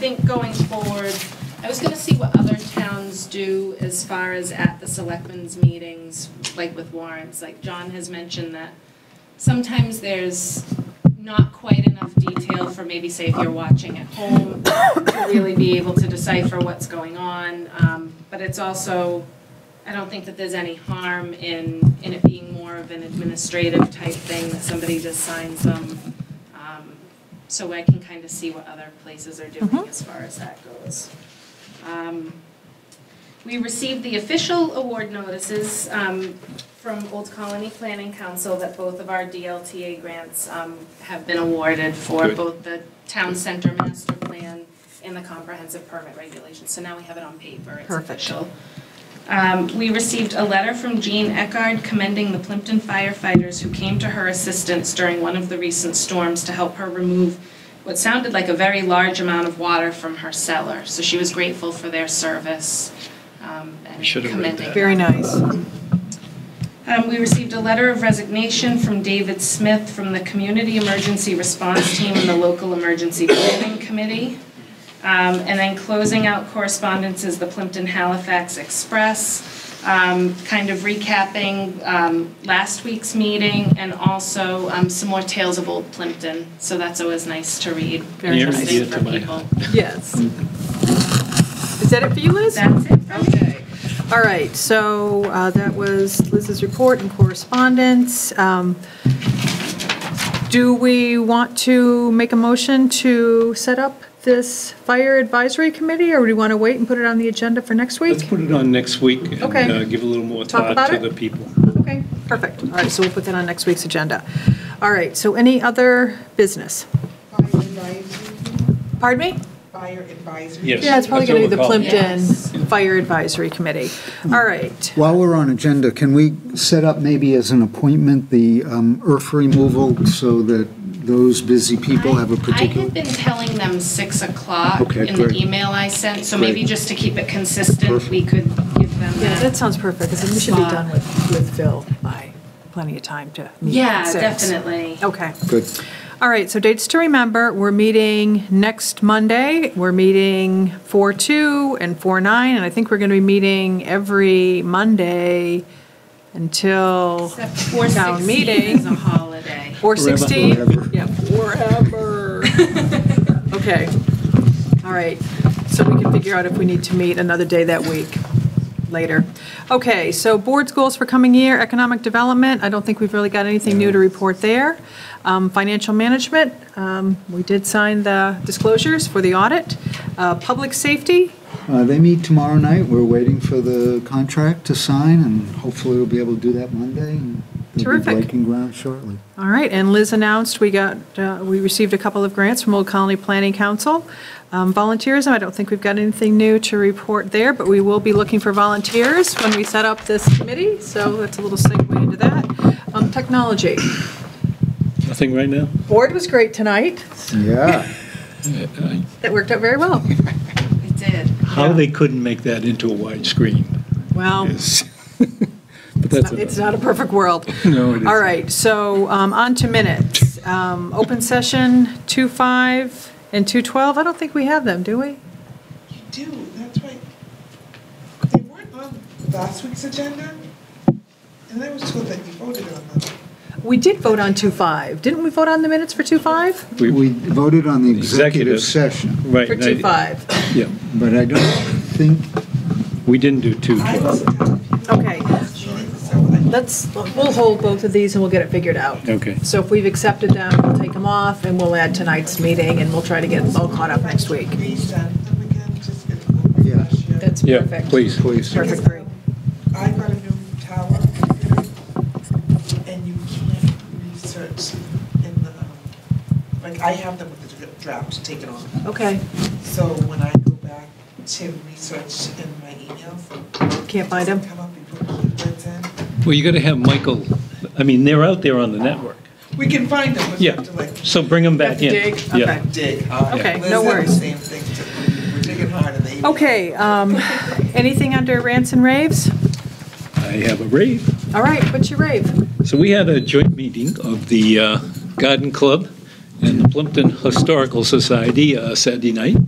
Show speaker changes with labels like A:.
A: think going forward, I was gonna see what other towns do as far as at the selectmen's meetings, like with warrants, like John has mentioned that sometimes there's not quite enough detail for maybe, say, if you're watching at home, to really be able to decipher what's going on, um, but it's also, I don't think that there's any harm in, in it being more of an administrative type thing, that somebody just signs them. Um, So I can kind of see what other places are doing as far as that goes. Um, We received the official award notices um, from Old Colony Planning Council that both of our DLTA grants um, have been awarded for
B: Good.
A: both the town center master plan and the comprehensive permit regulations. So now we have it on paper, it's
C: Perfect.
A: official. Um, We received a letter from Jean Eckard commending the Plimpton firefighters who came to her assistance during one of the recent storms to help her remove what sounded like a very large amount of water from her cellar. So she was grateful for their service um, and
B: We should have read
A: commending
B: that.
A: them.
C: Very nice.
A: Um, We received a letter of resignation from David Smith from the Community Emergency Response Team and the Local Emergency Planning Committee. Um, And then closing out correspondence is the Plimpton Halifax Express, um, kind of recapping um, last week's meeting and also um, some more tales of old Plimpton. So that's always nice to read.
C: Very
B: Near and
C: nice.
B: dear
A: Interesting for
B: to my
A: people.
C: Yes. Is that it for you, Liz?
A: That's it for me.
C: Okay. All right, so uh, that was Liz's report and correspondence. Um, Do we want to make a motion to set up this fire advisory committee, or do you want to wait and put it on the agenda for next
B: Let's
C: week?
B: put it on next week and
C: Okay.
B: uh, give a little more
C: Talk
B: thought
C: about
B: to
C: it?
B: the people.
C: Okay, perfect. All right, so we'll put that on next week's agenda. All right, so any other business?
D: Fire advisory,
C: Pardon me?
D: fire advisory.
B: Yes.
C: Yeah, it's probably going to be the
B: That's what we're
C: Plimpton Fire Advisory Committee. All right.
E: While we're on agenda, can we set up maybe as an appointment the um, earth removal so that those busy people have a
A: I- I
E: particular?
A: had been telling them 6 o'clock
E: Okay,
A: in the
E: great.
A: email I sent, so maybe
E: Great.
A: just to keep it consistent, we could give them
C: Yeah, that
A: that.
C: sounds perfect, because we should be done with, with Phil by plenty of time to meet at
A: Yeah,
C: six.
A: definitely.
C: Okay.
E: Good.
C: All right, so dates to remember, we're meeting next Monday. We're meeting 4/2 and 4/9, and I think we're going to be meeting every Monday until
A: Except 4:16
C: town meeting.
A: is a holiday.
C: 416?
E: Forever.
C: Yeah, forever. Okay, all right. So we can figure out if we need to meet another day that week later. Okay, so board's goals for coming year, economic development, I don't think we've really got anything new to report there. Um, Financial management, um, we did sign the disclosures for the audit. Uh, Public safety,
E: Uh, They meet tomorrow night. We're waiting for the contract to sign, and hopefully we'll be able to do that Monday. and They'll be
C: Terrific.
E: breaking ground shortly.
C: All right, and Liz announced we got, uh, we received a couple of grants from Old Colony Planning Council. Um, Volunteerism, I don't think we've got anything new to report there, but we will be looking for volunteers when we set up this committee, so that's a little segue into that. Um, Technology,
B: Nothing right now?
C: board was great tonight,
E: Yeah.
C: that worked out very well.
A: It did.
B: How they couldn't make that into a widescreen
C: Well,
B: is, but that's
C: Oh. it's
B: another-
C: not a perfect world.
B: No, it
C: All
B: isn't.
C: right, so um, on to minutes. Um, Open session, 2:05 and 2:12, I don't think we have them, do we?
D: You do, that's right. They weren't on last week's agenda, and I was told that you voted on them.
C: We did vote on 2.5. Didn't we vote on the minutes for 2.5?
B: We-
E: We voted on the executive
B: Executive.
E: session,
B: Right.
C: For
B: and I-
C: 2.5.
B: Yeah,
E: but I don't think,
B: we didn't do two.
D: I was at the
C: Okay,
D: last meeting, so I-
C: let's, we'll hold both of these and we'll get it figured out.
B: Okay.
C: So if we've accepted them, we'll take them off and we'll add tonight's meeting and we'll try to get all caught up next week.
D: Resend them again, just get a little
E: Yeah.
D: refresh, yeah.
C: That's
B: Yeah,
C: perfect.
B: please.
E: please.
C: Perfect.
D: Because, um, I got a new tower computer, and you can't research in the, um, like, I have them with the draft taken off.
C: Okay,
D: So when I go back to research in my emails.
C: Can't find 'em?
D: it doesn't Come up, you put keywords in.
B: Well, you got to have Michael, I mean, they're out there on the network.
D: We can find them, but you
B: Yeah,
D: have to like
B: so bring them
C: Have
B: back
C: to
B: in.
C: dig?
B: Yeah.
C: Okay.
D: dig hard.
C: Okay,
D: Liz
C: no
D: did the
C: worries.
D: Same thing, to- we're digging hard in the email.
C: okay, um, anything under rants and raves?
B: I have a rave.
C: All right, what's your rave?
B: So we had a joint meeting of the uh, Garden Club and the Plimpton Historical Society uh, Saturday night.